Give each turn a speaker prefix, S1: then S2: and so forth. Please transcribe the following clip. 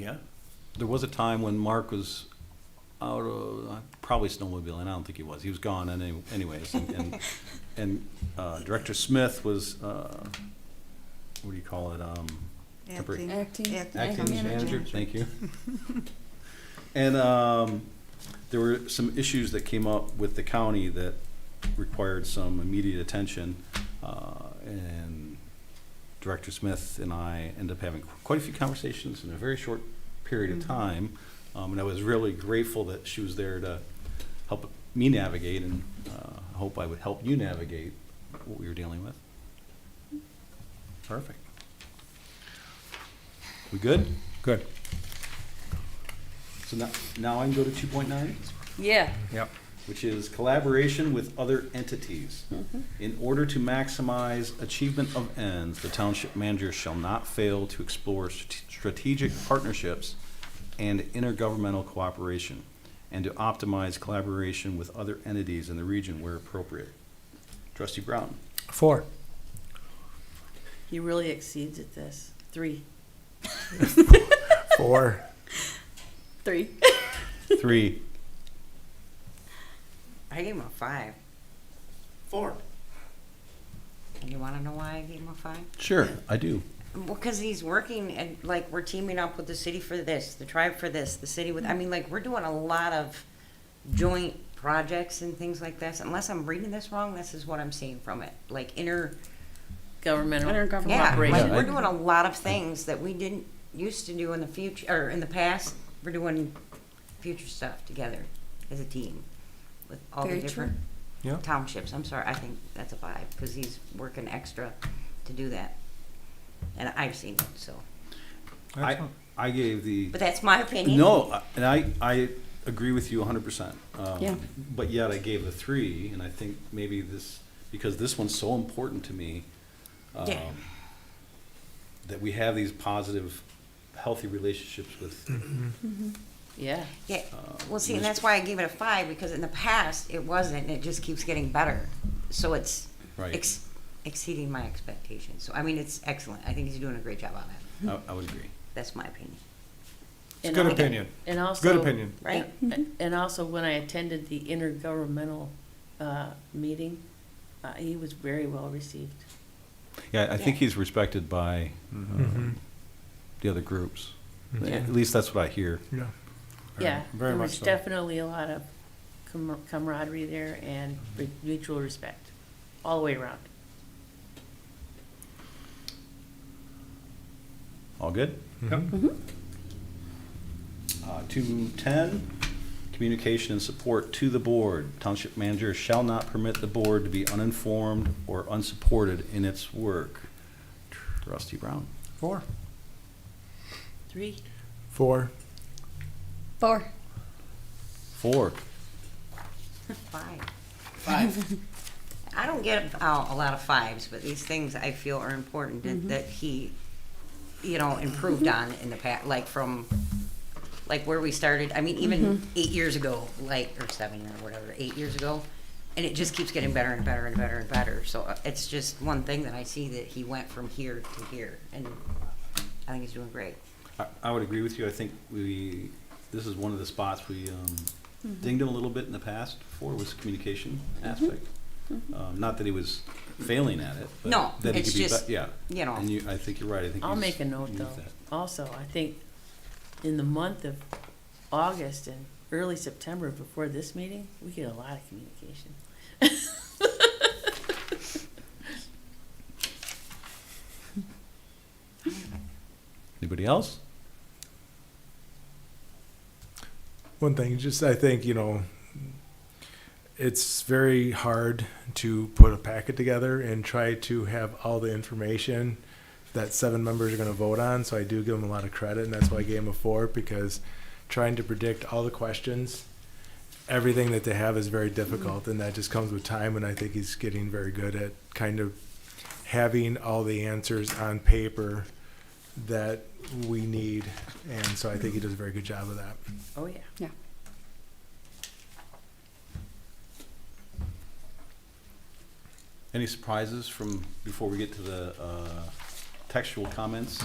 S1: Yeah. There was a time when Mark was out of, uh, probably snowmobiling, I don't think he was, he was gone any- anyways. and- And, and uh, Director Smith was, uh, what do you call it, um, temporary-
S2: Acting.
S3: Acting.
S1: acting
S3: Acting
S1: manager,
S3: manager.
S1: thank you. And, um, there were some issues that came up with the county that required some immediate attention. Uh, and Director Smith and I ended up having quite a few conversations in a very short period of
S2: Mhm.
S1: time. Um, and I was really grateful that she was there to help me navigate and, uh, I hope I would help you navigate what we were dealing with. Perfect. We good?
S4: Good.
S1: So now, now I can go to two point nine?
S3: Yeah.
S4: Yep.
S1: which is collaboration with other entities. In order to maximize achievement of ends, the township manager shall not fail to explore strate- strategic partnerships and intergovernmental cooperation, and to optimize collaboration with other entities in the region where appropriate. Trustee Brown,
S4: Four.
S3: He really exceeds at this. Three.
S4: Four.
S3: Three.
S1: three.
S5: I gave him a five.
S3: Four.
S5: And you want to know why I gave him a five?
S1: Sure, I do.
S5: Well, because he's working and like we're teaming up with the city for this, the tribe for this, the city with. I mean, like we're doing a lot of joint projects and things like this. Unless I'm reading this wrong, this is what I'm seeing from it. Like inner,
S3: Governmental
S5: yeah,
S3: cooperation.
S5: like
S1: Yeah, I-
S5: we're doing a lot of things that we didn't used to do in the future or in the past. We're doing future stuff together as a team with all
S2: Very
S5: the
S2: true.
S5: different
S4: Yeah.
S5: townships. I'm sorry, I think that's a five because he's working extra to do that, and I've seen it. So,
S1: I,
S4: Excellent.
S1: I gave the.
S5: but that's my opinion.
S1: No, I- and I, I agree with you hundred percent. Um,
S3: Yeah.
S1: But yet I gave a three, and I think maybe this, because this one's so important to me. um,
S5: Yeah.
S1: That we have these positive, healthy relationships with,
S3: Yeah.
S5: Yeah. Well, see,
S1: Mr.
S5: and that's why I gave it a five because in the past it wasn't, and it just keeps getting better. So it's
S1: Right.
S5: ex- exceeding my expectations. So I mean, it's excellent. I think he's doing a great job on it.
S1: I, I would agree.
S5: That's my opinion.
S3: And
S4: Good
S3: al-
S4: opinion.
S3: And also.
S4: Good opinion.
S5: Right.
S3: and- And also, when I attended the intergovernmental uh, meeting, uh, he was very well received.
S1: Yeah, I think
S5: think
S1: he's respected by um,
S4: Mhm.
S1: the other groups.
S3: Yeah.
S1: At least that's what I hear.
S4: Yeah. Very-
S3: Yeah.
S4: very
S3: There
S4: much
S3: was
S4: so.
S3: definitely a lot of camar- camaraderie there and re- mutual respect, all the way around.
S1: All good?
S4: Mhm.
S3: Mm-hmm.
S5: Mm-hmm.
S1: Uh, 210, communication and support to the board. Township manager shall not permit the board to be uninformed or unsupported in its work. Trustee Brown.
S4: Four.
S3: Three.
S4: Four.
S2: Four.
S1: Four.
S5: Five. Five. I don't get uh, a lot of fives, but these things I feel are important and that he, you know, improved on in the past, like from, like where we started. I mean, even eight years ago, like or seven or whatever, eight years ago, and it just keeps getting better and better and better and better. So uh, it's just one thing that I see that he went from here to here, and I think he's doing great.
S1: I, I would agree with you. I think we, this is one of the spots we um,
S5: Mm-hmm.
S1: dinged him a little bit in the past for was communication aspect. Um, Not that he was failing at it, but
S5: Mm-hmm. No,
S1: that he
S5: it's
S1: could be,
S5: just,
S1: bet- yeah.
S5: you know.
S1: And you, I think you're right. I think
S3: I'll
S1: he's-
S3: make a note
S1: he's
S3: though.
S1: that.
S3: Also, I think in the month of August and early September before this meeting, we get a lot of communication.
S1: Anybody else?
S4: One thing, just I think, you know, it's very hard to put a packet together and try to have all the information that seven members are going to vote on. So I do give them a lot of credit, and that's why I gave them a four because trying to predict all the questions, everything that they have is very difficult, and that just comes with time. And I think he's getting very good at kind of having all the answers on paper that we need. And so I think he does a very good job of that.
S3: Oh, yeah.
S2: Yeah.
S1: Any surprises from, before we get to the uh, textual comments?